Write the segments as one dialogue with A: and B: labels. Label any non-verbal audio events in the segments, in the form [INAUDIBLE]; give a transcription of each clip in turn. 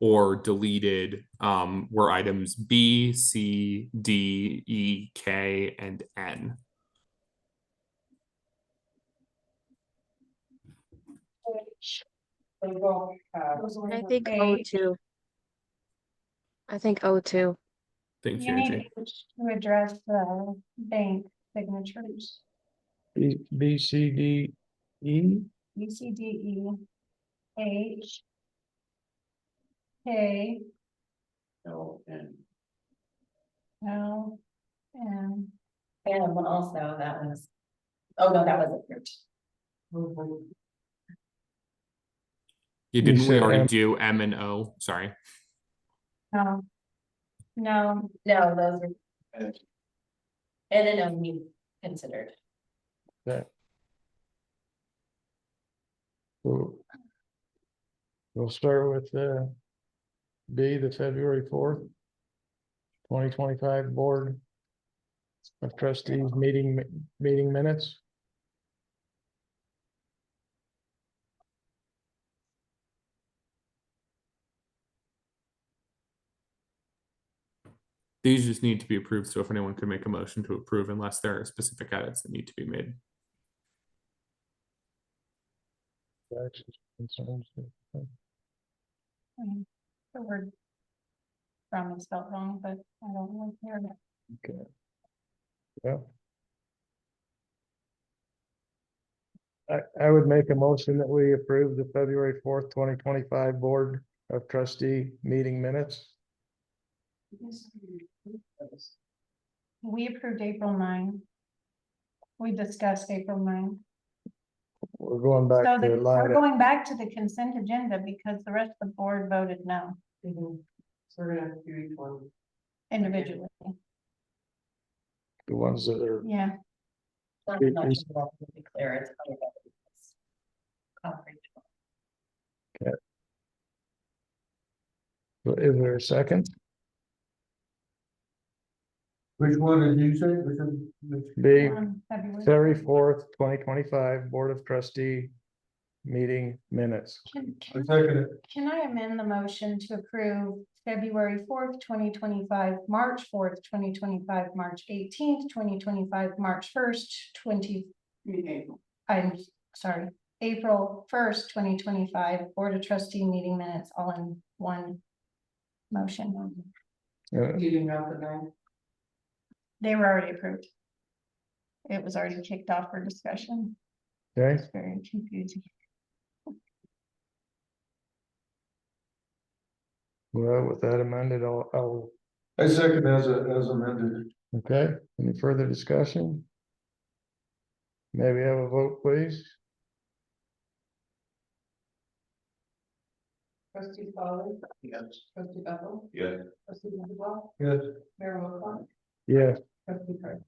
A: or deleted um, were items B, C, D, E, K, and N.
B: Uh,
C: Oh,
D: I think O two. I think O two.
A: Thank you,
C: You
A: Angie.
C: need to address the bank signatures,
E: B, B, C, D, E,
C: B, C, D, E, H, K,
E: L, N.
C: L, and
B: And one also, that was, oh no, that was approved.
F: Mm-hmm.
A: You
E: You
A: didn't we
E: said
A: already
E: M.
A: do M and O? Sorry.
C: no. No,
B: No, those were.
E: Okay.
B: And then um, we considered.
E: We'll we'll start with, uh, B, the February fourth, twenty twenty-five Board of Trustees meeting, mi- meeting minutes.
A: These just need to be approved. So if anyone could make a motion to approve unless there are specific edits that need to be made.
E: Corrections, concerns.
C: um, the word from is spelled wrong, but I don't want to hear that.
E: Okay. Yeah. I, I would make a motion that we approve the February fourth, twenty twenty-five Board of Trustee meeting minutes.
F: Mm-hmm.
C: We approved April nine. We discussed April nine.
E: We're going
C: So
E: back
C: the-
E: to
C: we're
E: line,
C: going back to the consent agenda because the rest of the board voted no individually.
E: the ones that are,
C: Yeah,
B: Not
E: It
B: much,
E: is-
B: but to be clear, it's part of it. It's comprehensive.
E: is there a second?
G: Which one did you say? Which one- which-
E: B,
C: um, February.
E: February fourth, twenty twenty-five Board of Trustee meeting minutes.
C: Can- can-
G: I second it.
C: Can I amend the motion to approve February fourth, twenty twenty-five, March fourth, twenty twenty-five, March eighteenth, twenty twenty-five, March first, twenty? I'm sorry, April first, twenty twenty-five, Board of Trustee meeting minutes, all in one motion.
E: Uh,
C: They were already approved. It was already kicked off for discussion.
E: Okay,
C: It's very confusing.
E: well, with that amended, I'll, I'll,
G: I second as a, as amended.
E: oh, okay, any further discussion? Maybe have a vote, please?
F: Trustee Polly.
G: Yes.
F: Trustee Bethel.
G: Yes.
F: Trustee Wendell.
G: Yes.
F: Mayor Wilcox.
E: Yeah,
F: Trustee Craig.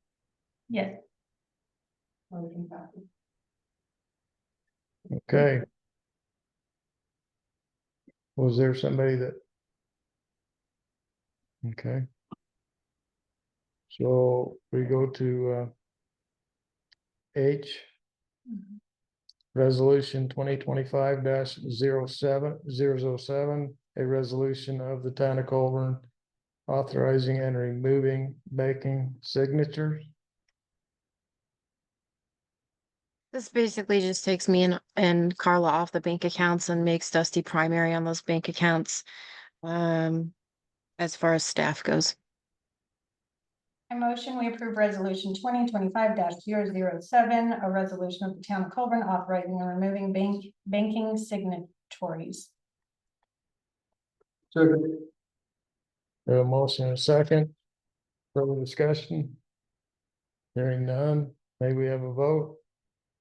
C: Yes,
F: Motion passes.
E: okay. Was there somebody that? Okay. So we go to, uh, H.
C: Mhm.
E: Resolution twenty twenty-five 7 zero seven, zero zero seven, a resolution of the town of Colburn. Authorizing and removing making signatures.
D: This basically just takes me and, and Carla off the bank accounts and makes Dusty primary on those bank accounts. Um, as far as staff goes.
C: I motion we approve resolution twenty twenty-five 7 a resolution of the town of Colburn authorizing and removing bank, banking signatories.
G: Second,
E: We have A motion and a second. Further discussion? Hearing none, may we have a vote?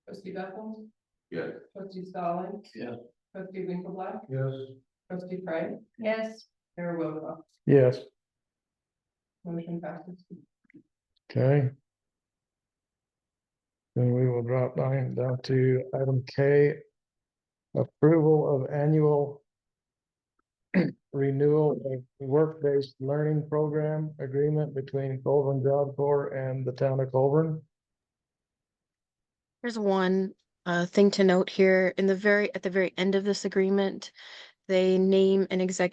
F: Trustee Bethel.
G: Yes.
F: Trustee Stalin.
G: Yes.
F: Trustee Winkleblack.
G: yes.
F: Trustee Craig.
C: Yes,
F: Mayor Wilcox.
E: Yes,
F: Motion passes.
E: okay. Then we will drop down, down to item K. Approval of annual [CLEARS THROAT] renewal of work-based learning program agreement between Colburn Job Corps and the town of Colburn.
D: There's one uh thing to note here in the very, at the very end of this agreement. They name an executive